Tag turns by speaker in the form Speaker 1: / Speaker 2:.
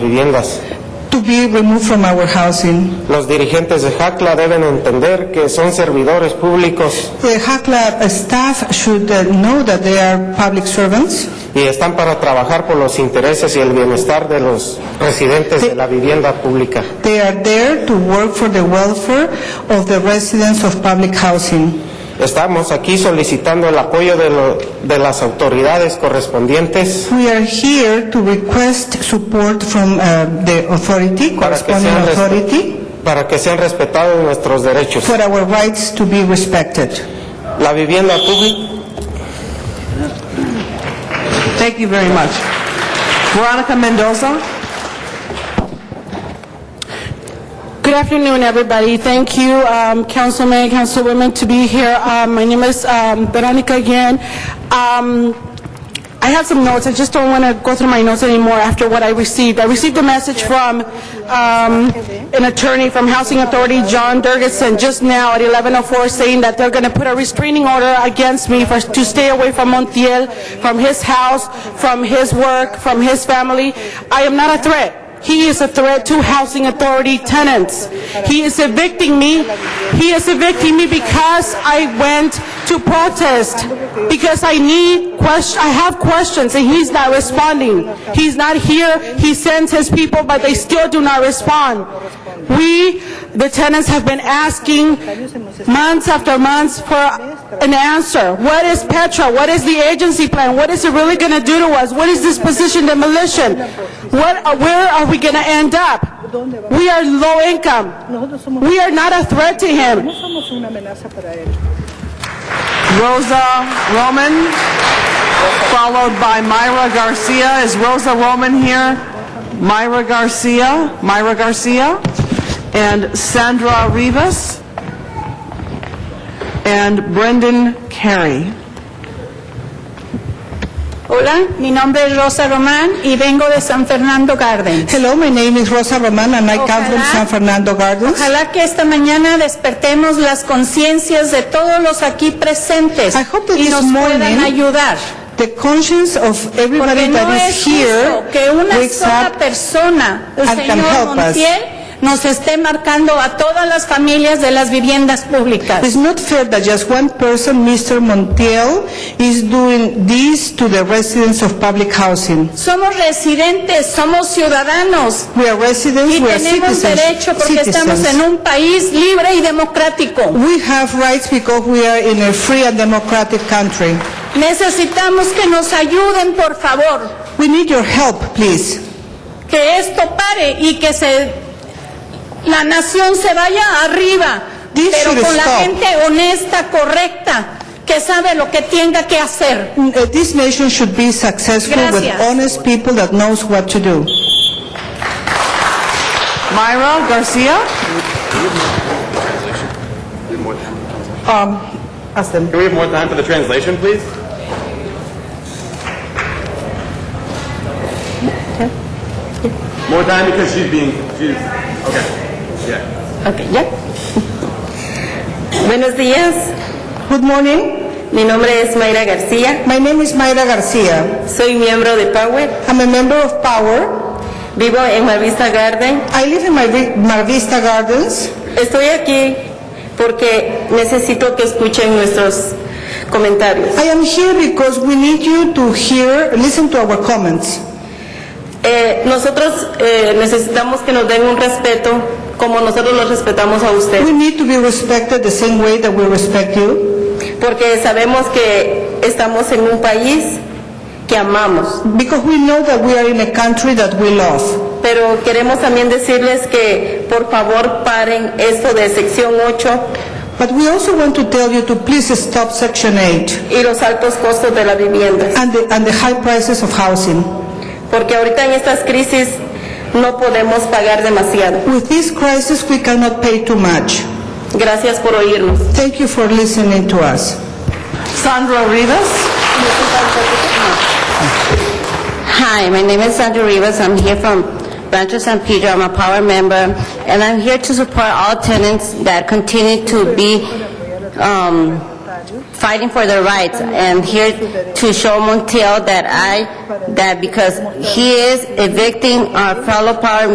Speaker 1: viviendas.
Speaker 2: to be removed from our housing.
Speaker 1: Los dirigentes de Jacla deben entender que son servidores públicos
Speaker 2: The HACLA staff should uh, know that they are public servants.
Speaker 1: y están para trabajar por los intereses y el bienestar de los residentes de la vivienda pública.
Speaker 2: They are there to work for the welfare of the residents of public housing.
Speaker 1: Estamos aquí solicitando el apoyo de, lo- de las autoridades correspondientes
Speaker 2: We are here to request support from uh, the authority,
Speaker 1: para que,
Speaker 2: corresponding
Speaker 1: sean
Speaker 2: authority,
Speaker 1: respe- para que sean respetados nuestros derechos.
Speaker 2: for our rights to be respected.
Speaker 1: La vivienda pública.
Speaker 3: Thank you very much. Veronica Mendoza?
Speaker 4: Good afternoon, everybody. Thank you, um, councilmen, councilwomen, to be here. Um, My name is um, Veronica again. Um, I have some notes, I just don't want to go through my notes anymore after what I received. I received a message from um, an attorney from Housing Authority, John Durgason, just now at 11:04, saying that they're going to put a restraining order against me for, to stay away from Montiel, from his house, from his work, from his family. I am not a threat. He is a threat to housing authority tenants. He is evicting me. He is evicting me because I went to protest, because I need ques- I have questions, and he's not responding. He's not here. He sends his people, but they still do not respond. We, the tenants, have been asking months after months for an answer. What is Petra? What is the agency plan? What is it really going to do to us? What is this position demolition? What, uh, where are we going to end up? We are low income. We are not a threat to him.
Speaker 3: Rosa Roman, followed by Myra Garcia. Is Rosa Roman here? Myra Garcia, Myra Garcia, and Sandra Rivas, and Brendan Carey.
Speaker 5: Hola, mi nombre es Rosa Román y vengo de San Fernando Gardens.
Speaker 2: Hello, my name is Rosa Roman and I come from
Speaker 5: Ojalá-
Speaker 2: San Fernando
Speaker 4: Oh,
Speaker 2: Gardens.
Speaker 5: Ojalá que esta mañana despertemos las conciencias de todos los aquí presentes
Speaker 2: I hope that
Speaker 5: y
Speaker 2: this
Speaker 5: nos
Speaker 2: morning-
Speaker 5: puedan ayudar.
Speaker 2: The conscience of everybody
Speaker 5: Porque no
Speaker 2: that
Speaker 5: es
Speaker 2: is here
Speaker 5: justo que una
Speaker 2: wakes
Speaker 5: sola
Speaker 2: up
Speaker 5: persona, el
Speaker 2: and can
Speaker 5: señor
Speaker 2: help us.
Speaker 5: Montiel, nos esté marcando a todas las familias de las viviendas públicas.
Speaker 2: It's not fair that just one person, Mr. Montiel, is doing this to the residents of public housing.
Speaker 5: Somos residentes, somos ciudadanos
Speaker 2: We are residents,
Speaker 5: y
Speaker 2: we are
Speaker 5: tenemos
Speaker 2: citizens.
Speaker 5: derecho porque estamos
Speaker 2: citizens.
Speaker 5: en un país libre y democrático.
Speaker 2: We have rights because we are in a free and democratic country.
Speaker 5: Necesitamos que nos ayuden, por favor,
Speaker 2: We need your help, please.
Speaker 5: que esto pare y que se, la nación se vaya arriba,
Speaker 2: This should
Speaker 5: pero con la
Speaker 2: stop.
Speaker 5: gente honesta, correcta, que sabe lo que tenga que hacer.
Speaker 2: Mm, uh, This nation should be successful with
Speaker 5: Gracias.
Speaker 2: honest people that knows what to do.
Speaker 3: Myra Garcia?
Speaker 2: Um,
Speaker 6: Can we have more time for the translation, please? More time because she's being, she's, okay, yeah.
Speaker 7: Buenos días,
Speaker 2: Good morning.
Speaker 7: mi nombre es Mayra García,
Speaker 2: My name is Mayra Garcia.
Speaker 7: soy miembro de Power,
Speaker 2: I'm a member of Power.
Speaker 7: vivo en Marvista Garden.
Speaker 2: I live in Mar- Mar Vista Gardens.
Speaker 7: Estoy aquí porque necesito que escuchen nuestros comentarios.
Speaker 2: I am here because we need you to hear, listen to our comments.
Speaker 7: Eh, nosotros eh, necesitamos que nos den un respeto como nosotros los respetamos a
Speaker 2: We
Speaker 7: ustedes,
Speaker 2: need to be respected the same way that we respect you
Speaker 7: porque sabemos que estamos en un país que amamos,
Speaker 2: because we know that we are in a country that we love.
Speaker 7: pero queremos también decirles que por favor paren esto de sección 8
Speaker 2: But we also want to tell you to please stop Section 8
Speaker 7: y los altos costos de la vivienda.
Speaker 2: and the, and the high prices of housing.
Speaker 7: porque ahorita en estas crisis no podemos pagar demasiado.
Speaker 2: With this crisis, we cannot pay too much.
Speaker 7: Gracias por oírnos.
Speaker 2: Thank you for listening to us.
Speaker 3: Sandra Rivas?
Speaker 8: Hi, my name is Sandra Rivas. I'm here from Rancho San Pedro. I'm a power member, and I'm here to support all tenants that continue to be um,
Speaker 7: fighting for their rights. And here to show Montiel that I, that because he is evicting our fellow power